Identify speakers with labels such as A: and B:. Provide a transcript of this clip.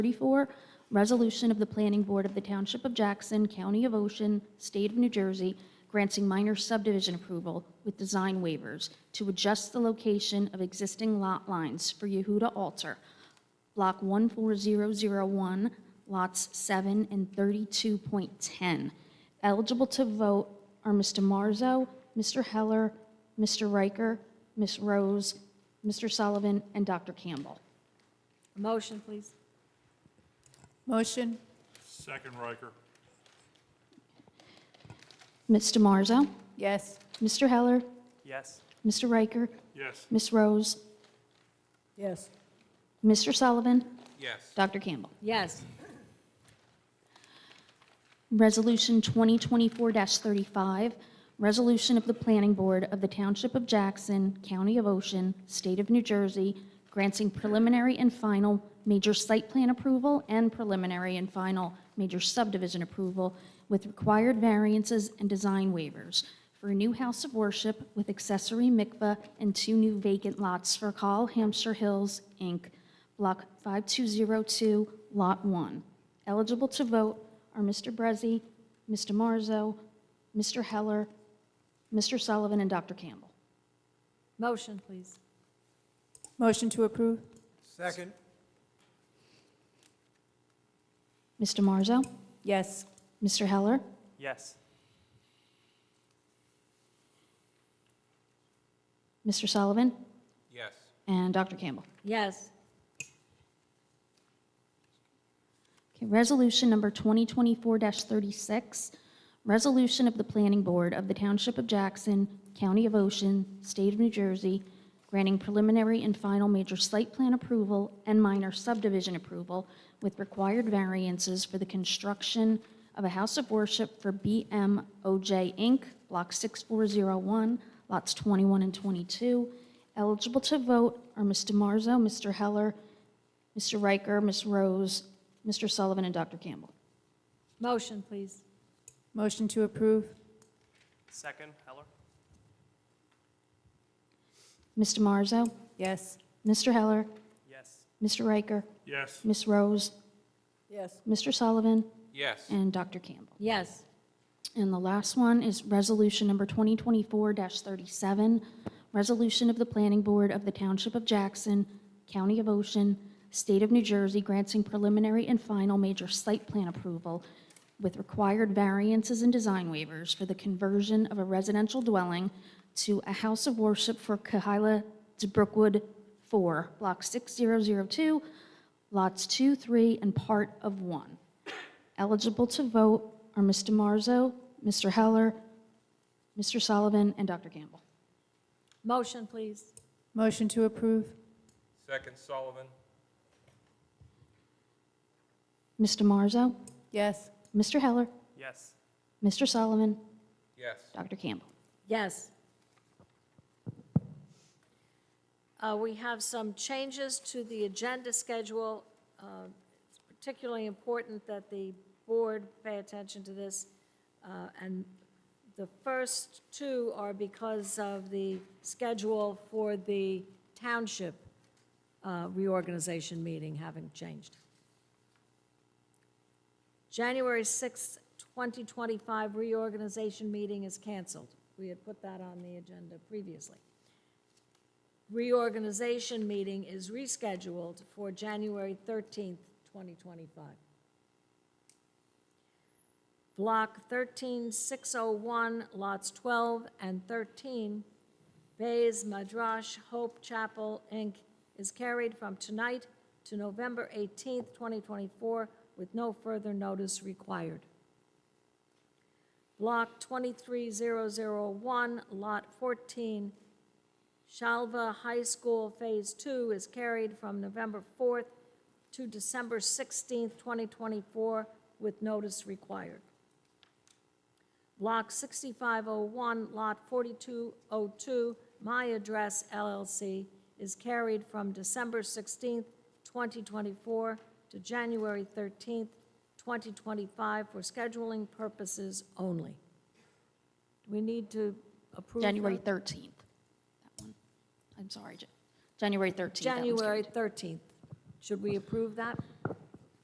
A: 34, resolution of the Planning Board of the Township of Jackson, County of Ocean, State of New Jersey, granting minor subdivision approval with design waivers to adjust the location of existing lot lines for Yehuda Alter, Block 14001, lots 7 and 32.10. Eligible to vote are Mr. Marzo, Mr. Heller, Mr. Riker, Ms. Rose, Mr. Sullivan, and Dr. Campbell.
B: Motion, please.
C: Motion,
D: Second Riker.
A: Mr. Marzo?
C: yes.
A: Mr. Heller,
D: Yes.
A: Mr. Riker,
D: Yes.
A: Ms. Rose,
C: Yes.
A: Mr. Sullivan,
D: Yes.
A: Dr. Campbell.
B: Yes.
A: Resolution 2024-35, resolution of the Planning Board of the Township of Jackson, County of Ocean, State of New Jersey, granting preliminary and final major site plan approval and preliminary and final major subdivision approval with required variances and design waivers for a new house of worship with accessory mikveh and two new vacant lots for Call Hampshire Hills, Inc., Block 5202, Lot 1. Eligible to vote are Mr. Brezzi, Mr. Marzo, Mr. Heller, Mr. Sullivan, and Dr. Campbell.
B: Motion, please.
C: Motion to approve,
E: Second,
A: Mr. Marzo,
C: yes.
A: Mr. Heller,
D: Yes.
A: Mr. Sullivan,
D: Yes.
A: and Dr. Campbell.
B: Yes.
A: Okay, Resolution number 2024-36, resolution of the Planning Board of the Township of Jackson, County of Ocean, State of New Jersey, granting preliminary and final major site plan approval and minor subdivision approval with required variances for the construction of a house of worship for BMOJ Inc., Block 6401, lots 21 and 22. Eligible to vote are Mr. Marzo, Mr. Heller, Mr. Riker, Ms. Rose, Mr. Sullivan, and Dr. Campbell.
B: Motion, please.
C: Motion to approve,
D: Second Heller.
A: Mr. Marzo,
C: yes.
A: Mr. Heller,
D: Yes.
A: Mr. Riker,
D: Yes.
A: Ms. Rose,
C: Yes.
A: Mr. Sullivan,
D: Yes.
A: and Dr. Campbell.
B: Yes.
A: And the last one is Resolution Number 2024-37, Resolution of the Planning Board of the Township of Jackson, County of Ocean, State of New Jersey, granting preliminary and final major site plan approval with required variances and design waivers for the conversion of a residential dwelling to a house of worship for Kahila to Brookwood 4, Block 6002, Lots 2, 3, and part of 1. Eligible to vote are Mr. Marzo, Mr. Heller, Mr. Sullivan, and Dr. Campbell.
B: Motion, please.
C: Motion to approve,
D: Second Sullivan.
A: Mr. Marzo,
C: yes.
A: Mr. Heller,
D: Yes.
A: Mr. Sullivan,
D: Yes.
A: Dr. Campbell.
B: Yes. Uh, We have some changes to the agenda schedule. Uh, It's particularly important that the board pay attention to this. Uh, And the first two are because of the schedule for the township uh, reorganization meeting having changed. January 6th, 2025 reorganization meeting is canceled. We had put that on the agenda previously. Reorganization meeting is rescheduled for January 13th, 2025. Block 13601, lots 12 and 13, Bays Madrash Hope Chapel, Inc., is carried from tonight to November 18th, 2024, with no further notice required. Block 23001, Lot 14, Shalva High School Phase 2 is carried from November 4th to December 16th, 2024, with notice required. Block 6501, Lot 4202, My Address LLC, is carried from December 16th, 2024 to January 13th, 2025 for scheduling purposes only. Do we need to approve?
A: January
B: that?
A: 13th. That one. I'm sorry, Ja- January 13th. that one's
B: January
A: correct.
B: 13th. Should we approve that?